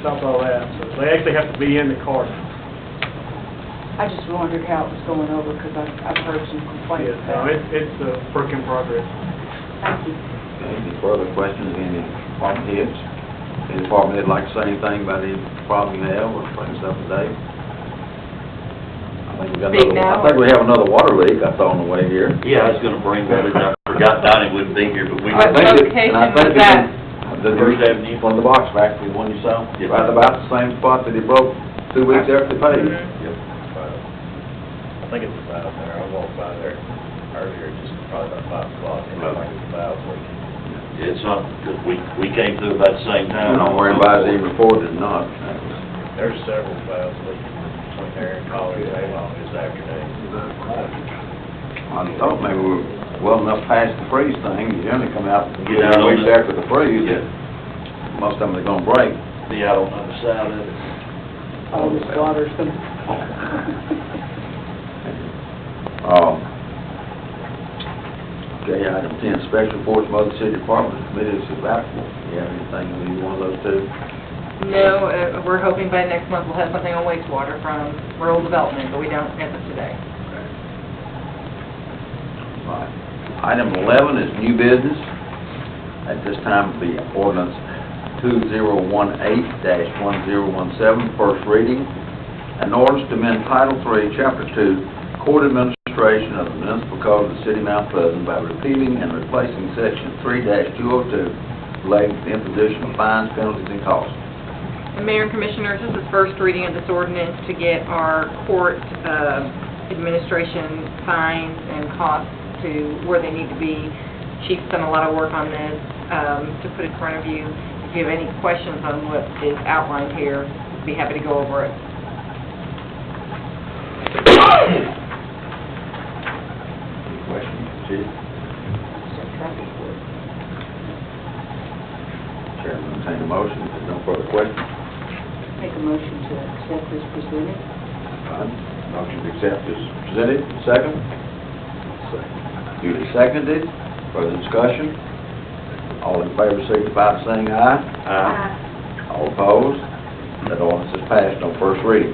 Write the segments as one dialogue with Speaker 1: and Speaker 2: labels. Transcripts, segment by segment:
Speaker 1: stop all that, so they actually have to be in the cart.
Speaker 2: I just wondered how it was going over, because I've, I've heard some complaints
Speaker 1: Yes, no,
Speaker 2: about
Speaker 1: it,
Speaker 2: it.
Speaker 1: it's a work in progress.
Speaker 2: Thank you.
Speaker 3: Any further questions, any department heads? Any department head like to say anything about any problem you have or things up to date? I think we got
Speaker 2: Speak
Speaker 3: another,
Speaker 2: now.
Speaker 3: I think we have another water leak I saw on the way here.
Speaker 4: Yeah, I was gonna bring that, and I forgot Donnie wouldn't be here, but we,
Speaker 3: I think it- and I think
Speaker 5: location was
Speaker 3: it's
Speaker 5: that?
Speaker 3: in The First Avenue from the box factory, the one you saw,
Speaker 4: Yeah.
Speaker 3: right about the same spot that he broke two weeks after the pay.
Speaker 4: Mm-hmm.
Speaker 6: I think it's about there, I walked by there earlier, just probably about five o'clock, and I think it's about leaking.
Speaker 4: it's not, we, we came through about the same
Speaker 3: I
Speaker 4: time.
Speaker 3: don't worry about it, he reported it or not. That was-
Speaker 6: There's several valves leaking between there and College Along this afternoon.
Speaker 3: I thought maybe we were well enough past the freeze thing, you only come out,
Speaker 4: Get out on
Speaker 3: weeks
Speaker 4: the-
Speaker 3: after the freeze,
Speaker 4: Yeah.
Speaker 3: most of them are gonna break.
Speaker 4: Be out on the other side of it.
Speaker 2: All this water's going
Speaker 3: Um, Okay, item ten, special reports from other city departments, committees of applicable. You have anything, in either one of those two?
Speaker 5: No, uh, we're hoping by next month we'll have something on wastewater from rural development, but we don't have it today.
Speaker 3: Right. Item eleven is new business. At this time, the ordinance two zero one eight dash one zero one seven, first reading. An ordinance to amend Title Three, Chapter Two, Court Administration of the Municipal Code of the City of Mount Pleasant by repealing and replacing Section three two oh two relating to the imposition of fines, penalties, and costs.
Speaker 5: And Mayor and Commissioners, this is first reading of this ordinance to get our court uh, administration fines and costs to where they need to be. Chief's done a lot of work on this, um, to put in front of you. If you have any questions on what is outlined here, be happy to go over it.
Speaker 3: Any questions, Chief? Chairman, entertain a motion, if there's no further questions.
Speaker 2: make a motion to accept this presented.
Speaker 3: Aye. Motion to accept is presented, second? Duly seconded, further discussion? All in favor, signify by saying aye. All opposed? That ordinance is passed on first reading.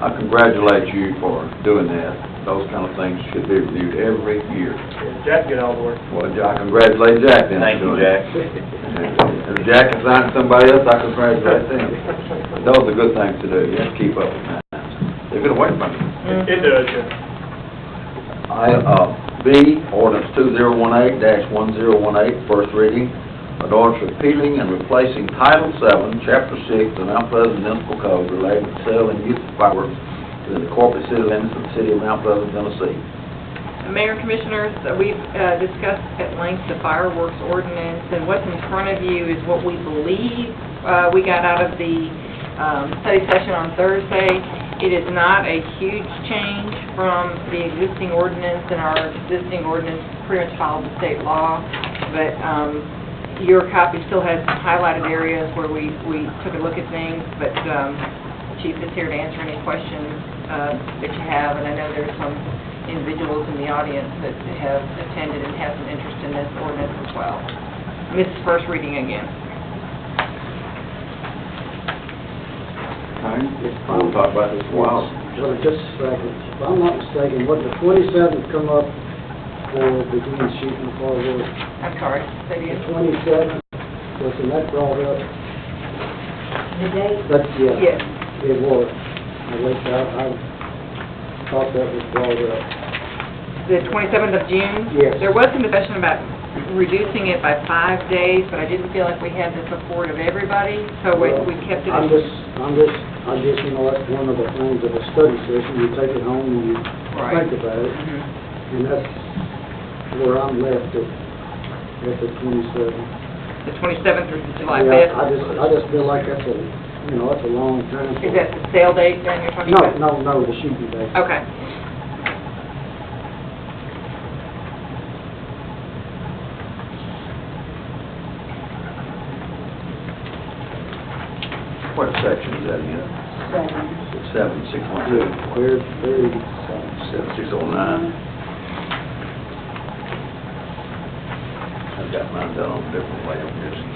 Speaker 3: I congratulate you for doing that. Those kind of things should be reviewed every year.
Speaker 1: Yeah, Jack did all the work.
Speaker 3: Well, I congratulate Jack then.
Speaker 4: Thank you, Jack.
Speaker 3: If Jack is not somebody else, I congratulate them. Those are good things to do, you have to keep up with that. They're gonna wait for you.
Speaker 1: It it does, yeah.
Speaker 3: I, uh, B, ordinance two zero one eight dash one zero one eight, first reading, an ordinance repealing and replacing Title Seven, Chapter Six, of the Mount Pleasant Municipal Code relating to selling youth fireworks to the corporate city limits of the city of Mount Pleasant, Tennessee.
Speaker 5: Mayor and Commissioners, uh, we've uh, discussed at length the fireworks ordinance, and what's in front of you is what we believe uh, we got out of the um, study session on Thursday. It is not a huge change from the existing ordinance, and our existing ordinance pretty much follows the state law, but um, your copy still has highlighted areas where we we took a look at things, but um, Chief is here to answer any questions uh, that you have, and I know there's some individuals in the audience that have attended and have some interest in this ordinance as well. And This is first reading again.
Speaker 3: Okay, we'll talk about this in a while.
Speaker 7: Johnny, just a second. If I'm not mistaken, would the twenty-seventh come up for the green shooting fireworks?
Speaker 5: I'm sorry, say it again.
Speaker 7: The twenty-seventh, wasn't that brought up?
Speaker 2: The date?
Speaker 7: That's, yeah,
Speaker 5: Yes,
Speaker 7: it was. I looked out, I thought that was brought up.
Speaker 5: the 27th of June.
Speaker 7: Yes.
Speaker 5: There was some discussion about reducing it by five days, but I didn't feel like we had the support of everybody, so we Oh, we kept it.
Speaker 7: I'm just, I'm just, I just, you know, that's one of the things of a study session, you take it home and you
Speaker 5: Right.
Speaker 7: think about it,
Speaker 5: Mhm.
Speaker 7: and that's where I'm left at, at the twenty-seventh.
Speaker 5: The 27th through July
Speaker 7: Yeah, I
Speaker 5: 5th.
Speaker 7: just, I just feel like that's a, you know, that's a long time. for-
Speaker 5: Is that the sale date then you're talking
Speaker 7: No,
Speaker 5: about?
Speaker 7: no, no, the shooting day.
Speaker 5: Okay.
Speaker 3: What section is that in?
Speaker 2: Seven.
Speaker 3: Seven, six one two,
Speaker 7: Yeah, Very, very sad.
Speaker 3: seven, six oh nine. I've got mine done on a different way, I'm just